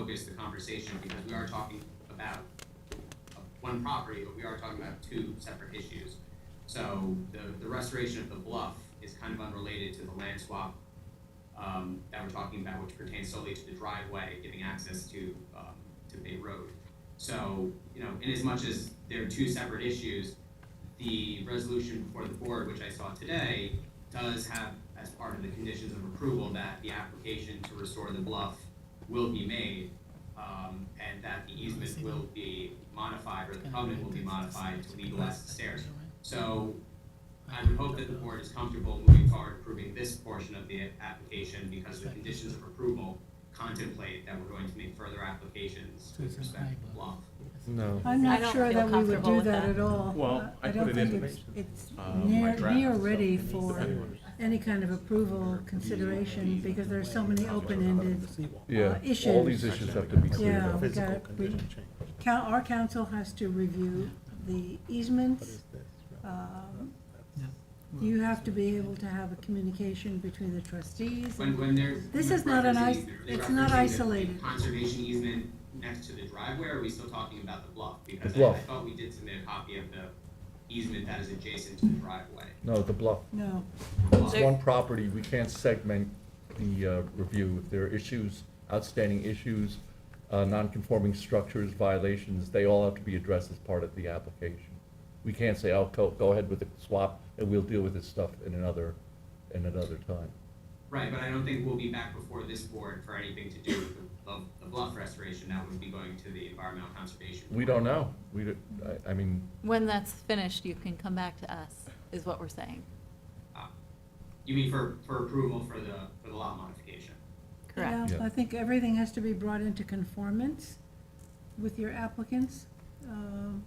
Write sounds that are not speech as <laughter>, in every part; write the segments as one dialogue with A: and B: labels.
A: focus the conversation because we are talking about one property, but we are talking about two separate issues. So the, the restoration of the bluff is kind of unrelated to the land swap um, that we're talking about, which pertains solely to the driveway giving access to, um, to Bay Road. So, you know, in as much as they're two separate issues, the resolution before the board, which I saw today, does have as part of the conditions of approval that the application to restore the bluff will be made, um, and that the easement will be modified, or the covenant will be modified to legalize the stairs. So I would hope that the board is comfortable moving forward approving this portion of the application because the conditions of approval contemplate that we're going to make further applications with respect to the bluff.
B: No.
C: I'm
D: I
C: not
D: don't
C: sure
D: feel
C: that we would
D: comfortable
C: do
D: with
C: that
D: that.
C: at all.
E: Well,
C: Uh,
E: I put it in.
C: don't think it's, it's
E: Uh, my
C: near,
E: draft,
C: near
E: so
C: ready
E: it needs to
C: for
E: be anyway.
C: any kind of approval consideration, because there are so many open-ended,
B: Yeah, all these issues have to be
C: yeah,
B: cleared
C: we
B: up.
C: got, we, coun- our council has to review the easements. um, You have to be able to have a communication between the trustees.
A: When, when they're.
C: This
A: when
C: is not an
A: referencing
C: is-
A: easement, are they
C: it's not
A: referencing the
C: isolated.
A: Conservation easement next to the driveway, or are we still talking about the bluff? Because I, I
B: bluff.
A: thought we did submit a copy of the easement that is adjacent to the driveway.
B: No, the bluff.
C: No,
B: It's one property, we can't segment the uh, review. If there are issues, outstanding issues, uh, non-conforming structures, violations, they all have to be addressed as part of the application. We can't say, oh, go, go ahead with the swap, and we'll deal with this stuff in another, in another time.
A: Right, but I don't think we'll be back before this board for anything to do with the, the- the bluff restoration. That would be going to the environmental conservation.
B: We
A: Board.
B: don't know. We, don't- I, I mean,
D: When that's finished, you can come back to us, is what we're saying.
A: Um, You mean for, for approval for the, for the lot modification?
D: Correct.
C: Yeah,
B: Yeah.
C: I think everything has to be brought into conformance with your applicants um,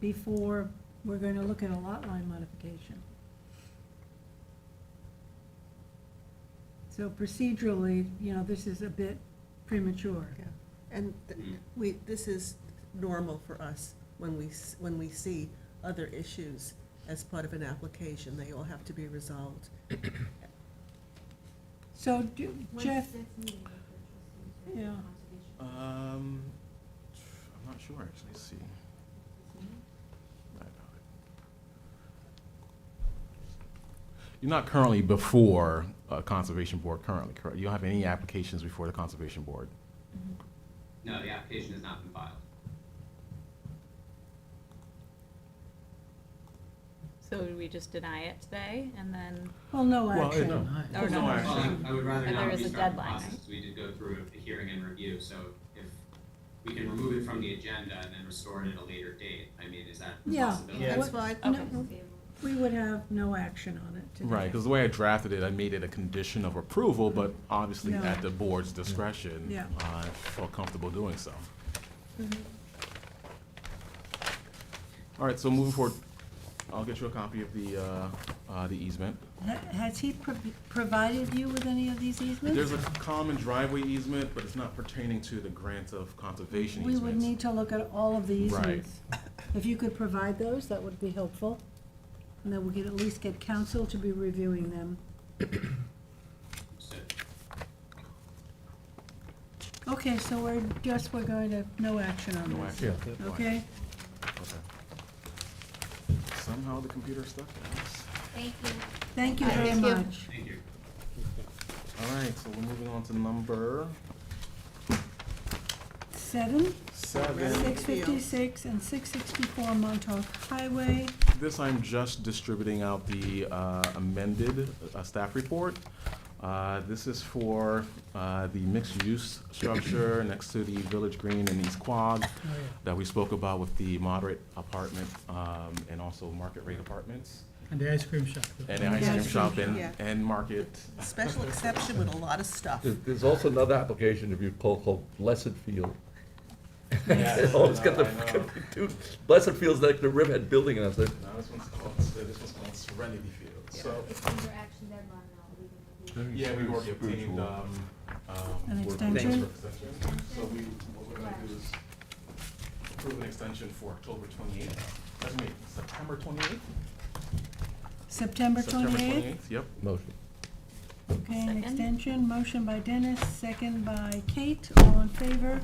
C: before we're going to look at a lot line modification. So procedurally, you know, this is a bit premature.
F: Yeah, and th-
A: Hmm.
F: we, this is normal for us when we, s- when we see other issues as part of an application. They all have to be resolved.
C: So do- Jeff, Yeah.
E: Um, I'm not sure, actually, Let's see. I doubt it. You're not currently before uh, Conservation Board currently, correct? You don't have any applications before the Conservation Board?
A: No, the application has not been filed.
D: So do we just deny it today and then,
C: well, no
E: Well,
C: action.
E: no.
D: or
C: Oh,
E: No,
D: no?
E: actually-
A: Well, I I would rather
D: But
A: not
D: there is a
A: restart the
D: deadline,
A: process,
D: right?
A: because we did go through a hearing and review, so if we can remove it from the agenda and then restore it at a later date, I mean, is that a
C: Yeah.
A: possibility?
C: Yeah.
F: That's fine.
C: No, We would have no action on it today.
E: Right, because the way I drafted it, I made it a condition of approval, but obviously
C: No.
E: at the board's discretion. uh,
C: Yeah. Mm-hmm.
E: I felt comfortable doing so. All right, so moving forward, I'll get you a copy of the, uh, uh, the easement.
C: Ha- Has he pro- provided you with any of these easements?
E: There's a common driveway easement, but it's not pertaining to the grant of conservation
C: We would need
E: easements.
C: to look at all of the
E: Right.
C: easements. If you could provide those, that would be helpful. And then we could at least get council to be reviewing them.
A: So,
C: Okay, so we're just, we're going to, no action on
E: No
C: this.
E: action.
C: Okay?
E: Okay. Somehow the computer stuck there.
G: Thank you.
C: Thank you very
D: Thank you.
C: much.
A: thank you.
E: All right, so we're moving on to number
C: Seven,
E: seven.
C: six fifty-six and six sixty-four Montauk Highway.
E: This, I'm just distributing out the uh, amended uh, staff report. Uh, This is for uh, the mixed-use structure next to the Village Green and East Quad that we spoke about with the moderate apartment um, and also market rate apartments
H: And the ice cream shop.
E: and the ice cream shop and,
F: Yeah.
E: and market.
F: Special exception with a lot of stuff.
B: There- There's also another application if you call called Blessed
E: <laughs>
B: Field. Always get the, <laughs> dude, Blessed Field's like the Riverhead Building, and I was like,
E: Now, this one's called, this one's called Serenity Field. So,
G: It's under action deadline now, we can do
E: yeah, we've already obtained, um, um.
C: An
E: we're-
C: extension?
E: So we, what we're gonna do is approve an extension for October twenty-eighth, that's me, September twenty-eighth?
C: September twenty-eighth,
E: Yep.
B: motion.
C: okay, an
D: Second.
C: extension, motion by Dennis, second by Kate, all in favor?